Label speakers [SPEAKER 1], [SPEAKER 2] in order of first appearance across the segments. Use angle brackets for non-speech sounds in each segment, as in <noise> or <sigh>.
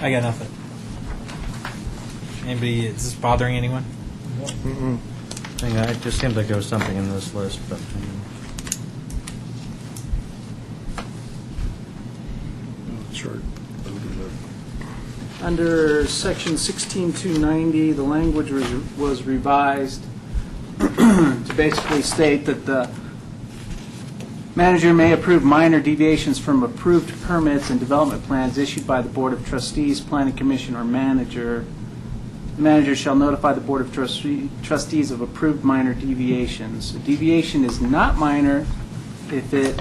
[SPEAKER 1] I got nothing. Anybody, is this bothering anyone?
[SPEAKER 2] Hang on, it just seems like there was something in this list, but. um,
[SPEAKER 3] Sure.
[SPEAKER 4] Under section 16290, the language was- was revised <clears throat> to basically state that the manager may approve minor deviations from approved permits and development plans issued by the Board of Trustees, Planning Commission, or manager. The Manager shall notify the Board of Trustee- Trustees of approved minor deviations. A deviation is not minor if it,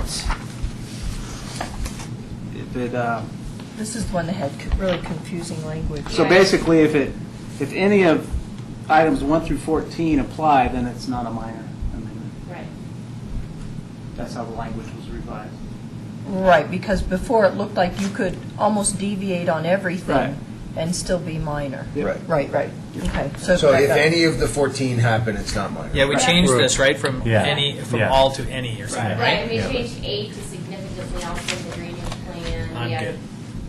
[SPEAKER 4] if it uh,
[SPEAKER 5] This is the one that had co- really confusing language.
[SPEAKER 4] So basically, if it, if any of items 1 through 14 apply, then it's not a minor amendment.
[SPEAKER 6] Right.
[SPEAKER 4] That's how the language was revised.
[SPEAKER 5] Right, because before it looked like you could almost deviate on
[SPEAKER 4] Right.
[SPEAKER 5] everything and still be minor.
[SPEAKER 4] Yep.
[SPEAKER 7] Right.
[SPEAKER 5] Right, right, okay.
[SPEAKER 7] So
[SPEAKER 5] back
[SPEAKER 7] if
[SPEAKER 5] up.
[SPEAKER 7] any of the 14 happen, it's not minor.
[SPEAKER 1] Yeah, we
[SPEAKER 7] Right.
[SPEAKER 1] changed this, right, from
[SPEAKER 2] Yeah.
[SPEAKER 1] any, from
[SPEAKER 2] Yeah.
[SPEAKER 1] all to any or something.
[SPEAKER 6] Right, and we
[SPEAKER 2] Yeah.
[SPEAKER 6] changed eight to significantly alter the drainage plan.
[SPEAKER 1] I'm
[SPEAKER 6] We
[SPEAKER 1] good.
[SPEAKER 6] added-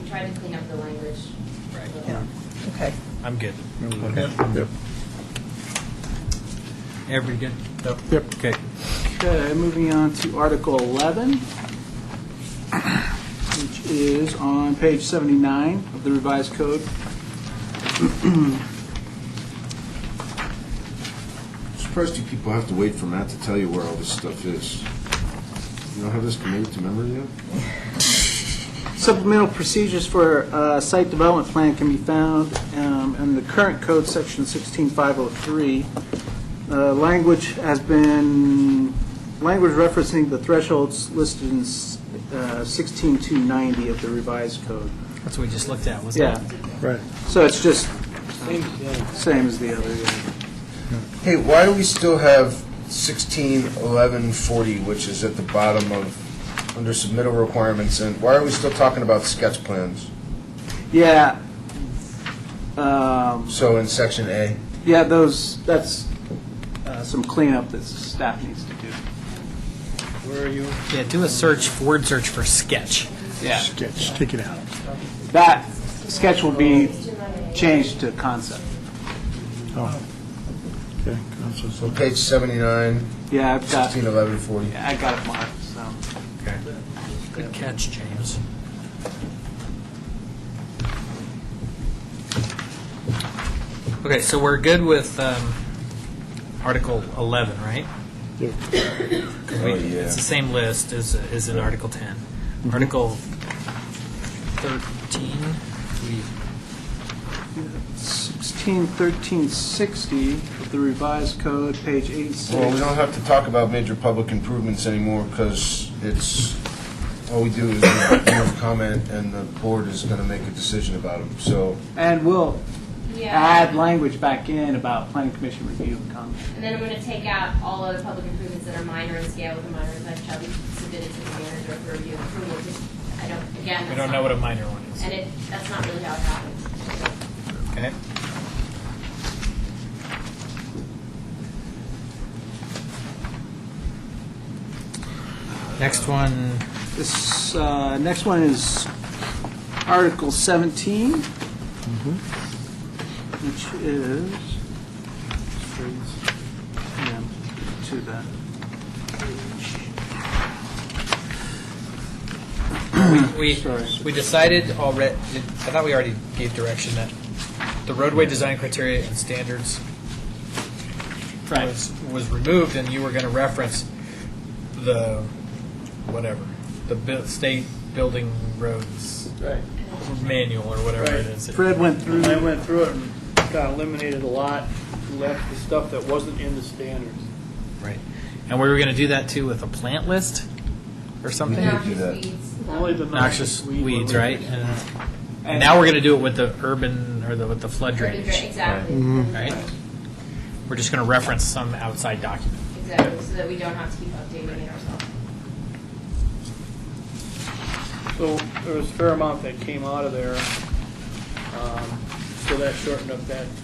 [SPEAKER 6] We tried to clean up the language. a
[SPEAKER 1] Right.
[SPEAKER 6] little.
[SPEAKER 4] Yeah.
[SPEAKER 5] Okay.
[SPEAKER 1] I'm good.
[SPEAKER 3] Yep.
[SPEAKER 1] Everybody good?
[SPEAKER 3] Yep.
[SPEAKER 1] Okay.
[SPEAKER 4] Okay, moving on to Article 11, which is on page 79 of the revised code.
[SPEAKER 8] Surprised you people have to wait for Matt to tell you where all this stuff is. You don't have this committed to memory yet?
[SPEAKER 4] Supplemental procedures for uh, site development plan can be found um, in the current code, section 16503. Uh, Language has been, language referencing the thresholds listed in s- uh, 16290 of the revised code.
[SPEAKER 1] That's what we just looked at, wasn't
[SPEAKER 4] Yeah,
[SPEAKER 1] it?
[SPEAKER 3] Right.
[SPEAKER 4] so it's just same as the other, yeah.
[SPEAKER 7] Hey, why do we still have 16, 11, 40, which is at the bottom of, under submittal requirements, and why are we still talking about sketch plans?
[SPEAKER 4] Yeah. Um,
[SPEAKER 7] So in section A?
[SPEAKER 4] Yeah, those, that's uh, some cleanup that staff needs to do.
[SPEAKER 3] Where are you?
[SPEAKER 1] Yeah, do a search, word search for sketch.
[SPEAKER 4] Yeah.
[SPEAKER 3] Sketch, take it out.
[SPEAKER 4] That sketch will be changed to concept.
[SPEAKER 3] Oh. Okay. that's what's
[SPEAKER 7] So
[SPEAKER 3] up.
[SPEAKER 7] page 79,
[SPEAKER 4] Yeah, I've got,
[SPEAKER 7] 16, 11, 40.
[SPEAKER 4] I got it marked, so.
[SPEAKER 1] Good catch, James. Okay, so we're good with um, Article 11, right?
[SPEAKER 3] Yep.
[SPEAKER 1] 'Cause we-
[SPEAKER 7] Oh, yeah.
[SPEAKER 1] It's the same list as, as in Article 10. Article 13, we
[SPEAKER 4] 16, 1360 of the revised code, page 86.
[SPEAKER 7] Well, we don't have to talk about major public improvements anymore, because it's, all we do is give comment, and the board is going to make a decision about them, so.
[SPEAKER 4] And we'll add
[SPEAKER 6] Yeah,
[SPEAKER 4] language back in about planning commission review and comment.
[SPEAKER 6] and then I'm gonna take out all other public improvements that are minor in scale with a minor effect shall be submitted to the manager for review and approval. Just- I don't, again.
[SPEAKER 1] we
[SPEAKER 6] that's
[SPEAKER 1] don't
[SPEAKER 6] not-
[SPEAKER 1] know what a minor one is.
[SPEAKER 6] And it, that's not really how it happens.
[SPEAKER 1] Okay. Next one,
[SPEAKER 4] This, uh, next one is Article 17,
[SPEAKER 7] Mm-hmm.
[SPEAKER 4] which is, yeah, to that.
[SPEAKER 1] we,
[SPEAKER 4] Sorry.
[SPEAKER 1] we decided already, I thought we already gave direction that the roadway design criteria and standards was, was removed, and you were going to reference the, whatever, the bu- state building roads
[SPEAKER 9] Right.
[SPEAKER 1] manual or whatever it is.
[SPEAKER 4] Fred went through.
[SPEAKER 9] And I went through it and kind of eliminated a lot, left the stuff that wasn't in the standards.
[SPEAKER 1] Right. And we were going to do that too with a plant list or something?
[SPEAKER 7] Yeah. do that.
[SPEAKER 6] Noxious weeds.
[SPEAKER 9] Only the
[SPEAKER 1] Noxious
[SPEAKER 9] weed
[SPEAKER 1] weeds,
[SPEAKER 9] remover.
[SPEAKER 1] right? And and now we're going to do it with the urban or the, with the flood drainage,
[SPEAKER 6] Exactly.
[SPEAKER 1] right? We're just going to reference some outside document.
[SPEAKER 6] Exactly, so that we don't have to keep updating it ourselves.
[SPEAKER 9] So there was a fair amount that came out of there, um, so that shortened up that